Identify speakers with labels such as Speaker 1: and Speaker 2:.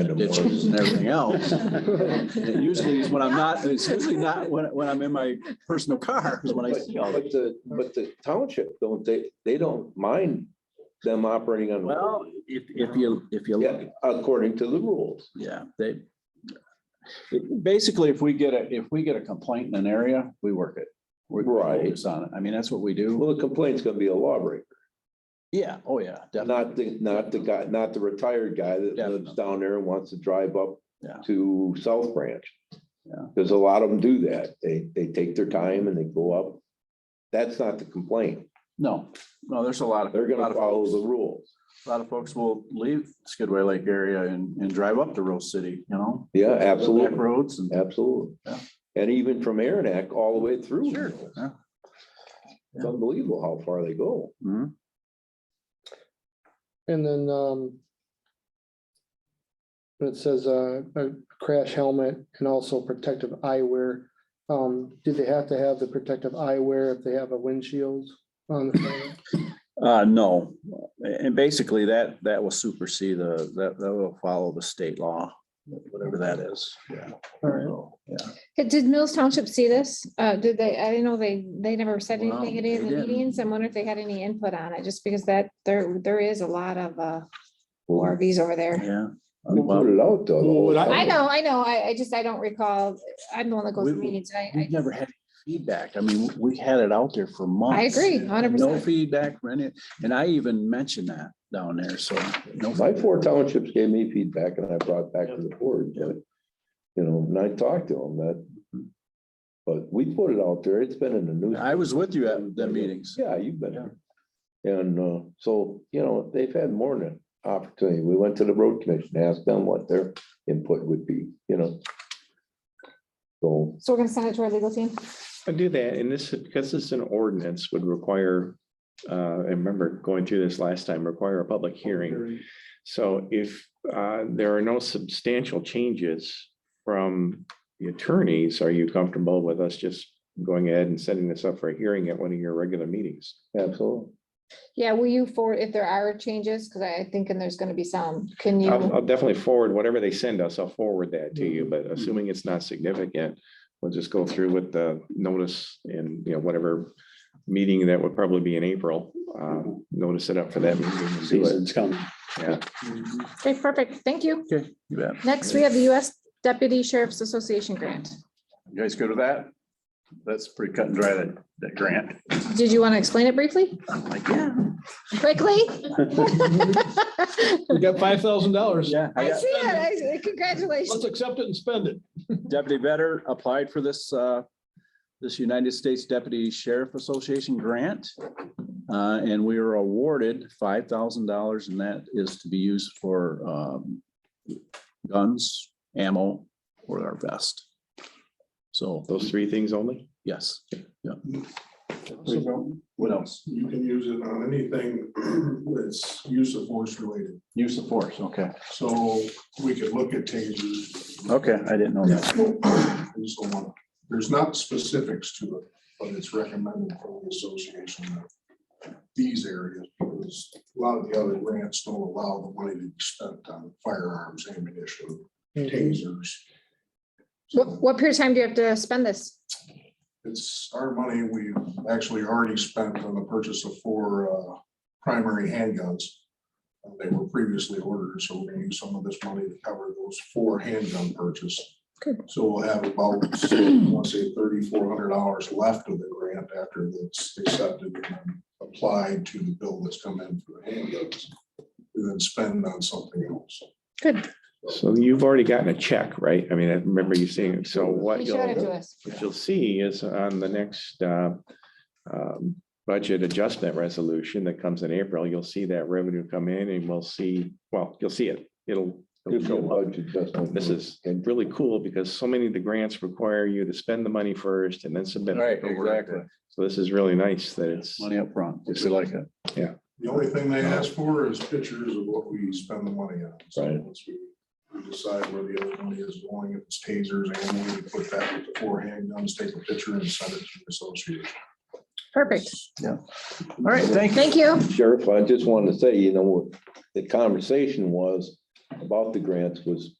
Speaker 1: And a mortgage.
Speaker 2: ditches and everything else. It usually is when I'm not, it's usually not when, when I'm in my personal car is when I see all
Speaker 1: But
Speaker 2: that.
Speaker 1: but the, but the township, don't they, they don't mind them operating on.
Speaker 2: Well, if, if you, if you look,
Speaker 1: Yeah, according to the rules.
Speaker 2: yeah, they. it- Basically, if we get a, if we get a complaint in an area, we work it. We we
Speaker 1: Right.
Speaker 2: focus On it. I mean, that's what we do.
Speaker 1: Well, the complaint's gonna be a lawbreaker,
Speaker 2: Yeah, oh, yeah, definitely.
Speaker 1: not the, not the guy, not the retired guy that lives
Speaker 2: Definitely.
Speaker 1: down there and wants to drive up
Speaker 2: Yeah.
Speaker 1: to South Branch.
Speaker 2: Yeah.
Speaker 1: Because a lot of them do that. They, they take their time and they go up. That's not the complaint.
Speaker 2: No, no, there's a lot of.
Speaker 1: They're
Speaker 2: lot
Speaker 1: gonna
Speaker 2: of
Speaker 1: follow
Speaker 2: folks-
Speaker 1: the rules.
Speaker 2: A lot of folks will leave Skidway Lake area and, and drive up to Rose City, you know?
Speaker 1: Yeah,
Speaker 2: back
Speaker 1: absolutely.
Speaker 2: Roads and.
Speaker 1: Absolutely.
Speaker 2: Yeah.
Speaker 1: And even from Aranac all the way through.
Speaker 2: Sure, yeah.
Speaker 1: It's unbelievable how far they go.
Speaker 2: Mhm.
Speaker 3: And then, um. It says, uh, a crash helmet and also protective eyewear. Um, do they have to have the protective eyewear if they have a windshield on the front?
Speaker 2: Uh, no, and basically that, that will supersede the, that, that will follow the state law, whatever that is. Yeah.
Speaker 3: All right.
Speaker 2: Yeah.
Speaker 4: Did- Did Mills Township see this? Uh, did they, I didn't know they, they never said
Speaker 2: Well,
Speaker 4: anything at any of
Speaker 2: they
Speaker 4: the
Speaker 2: didn't.
Speaker 4: meetings. I wonder if they had any input on it, just because that, there, there is a lot of, uh, ORVs over there.
Speaker 2: Yeah.
Speaker 1: We put it out though. the whole
Speaker 5: Well, I-
Speaker 4: I
Speaker 1: time.
Speaker 4: know, I know. I, I just, I don't recall. I'm the one that goes to
Speaker 2: We-
Speaker 4: meetings. I, I,
Speaker 2: We've never had feedback. I mean, we had it out there for months.
Speaker 4: I agree, 100%.
Speaker 2: No feedback, for any- and I even mentioned that down there, so. no
Speaker 1: My
Speaker 2: feedback.
Speaker 1: four townships gave me feedback and I brought it back to the board, but, you know, and I talked to them that. But we put it out there. It's been in the news.
Speaker 2: I was with you at the meetings.
Speaker 1: Yeah, you've been there. And, uh, so, you know, they've had more than opportunity. We went to the road commission, asked them what their input would be, you know? So,
Speaker 4: so we're gonna send it to our legal team.
Speaker 5: I do that, and this, because it's an ordinance would require, uh, I remember going through this last time, require a public hearing. So if, uh, there are no substantial changes from the attorneys, are you comfortable with us just going ahead and setting this up for a hearing at one of your regular meetings?
Speaker 1: absolutely.
Speaker 4: Yeah, will you forward, if there are changes, because I think and there's gonna be some, can
Speaker 5: I'll,
Speaker 4: you?
Speaker 5: I'll definitely forward whatever they send us. I'll forward that to you, but assuming it's not significant, we'll just go through with the notice and, you know, whatever meeting that would probably be in April, um, notice it up for that meeting. and do it.
Speaker 2: Season's coming.
Speaker 5: Yeah.
Speaker 4: Okay, perfect. Thank you.
Speaker 2: Okay, you bet.
Speaker 4: Next, we have the US Deputy Sheriff's Association grant.
Speaker 2: You guys good with that? That's pretty cut and dry, that, that grant.
Speaker 4: Did you want to explain it briefly,
Speaker 2: I'm like, yeah.
Speaker 4: quickly?
Speaker 6: We got five thousand dollars.
Speaker 2: Yeah. I
Speaker 4: I
Speaker 2: got-
Speaker 4: see it. I- Congratulations.
Speaker 6: Let's accept it and spend it.
Speaker 2: Deputy Vetter applied for this, uh, this United States Deputy Sheriff Association grant. Uh, and we were awarded five thousand dollars and that is to be used for, um, guns, ammo, or our vest. So,
Speaker 5: Those three things only?
Speaker 2: yes, yeah.
Speaker 7: So
Speaker 2: What else?
Speaker 7: You can use it on anything that's use of force related.
Speaker 2: Use of force, okay.
Speaker 7: So we could look at changes.
Speaker 2: Okay, I didn't know that.
Speaker 7: And so on. There's not specifics to it, but it's recommended from the association. that These areas, because a lot of the other grants don't allow the money to be spent on firearms, ammunition, tasers.
Speaker 4: What,
Speaker 7: So
Speaker 4: what period of time do you have to spend this?
Speaker 7: It's our money we've actually already spent on the purchase of four uh, primary handguns. Uh, They were previously ordered, so we're gonna use some of this money to cover those four handgun purchase.
Speaker 4: Good.
Speaker 7: So we'll have about, I want to say thirty-four hundred dollars left of the grant after that's accepted and applied to the bill that's come in for the handguns. And then spend on something else.
Speaker 4: Good.
Speaker 5: So you've already gotten a check, right? I mean, I remember you saying, so what
Speaker 4: He showed it
Speaker 5: you'll,
Speaker 4: to us.
Speaker 5: what you'll see is on the next, uh, um, budget adjustment resolution that comes in April, you'll see that revenue come in and we'll see, well, you'll see it. It'll. it'll
Speaker 1: Just a
Speaker 5: show up.
Speaker 1: budget adjustment.
Speaker 5: This is really cool because so many of the grants require you to spend the money first and then submit. paperwork. So this is really nice that it's,
Speaker 2: Money up front, if you like it.
Speaker 7: The only thing they ask for is pictures of what we spend the money on. So
Speaker 1: Right.
Speaker 7: once we we decide where the other money is going, if it's tasers, and we put that with the four handguns, take a picture and send it to the association.
Speaker 4: Perfect.
Speaker 2: All right, thank you.
Speaker 4: Thank you.
Speaker 1: Sheriff, I just wanted to say, you know, the conversation was about the grants was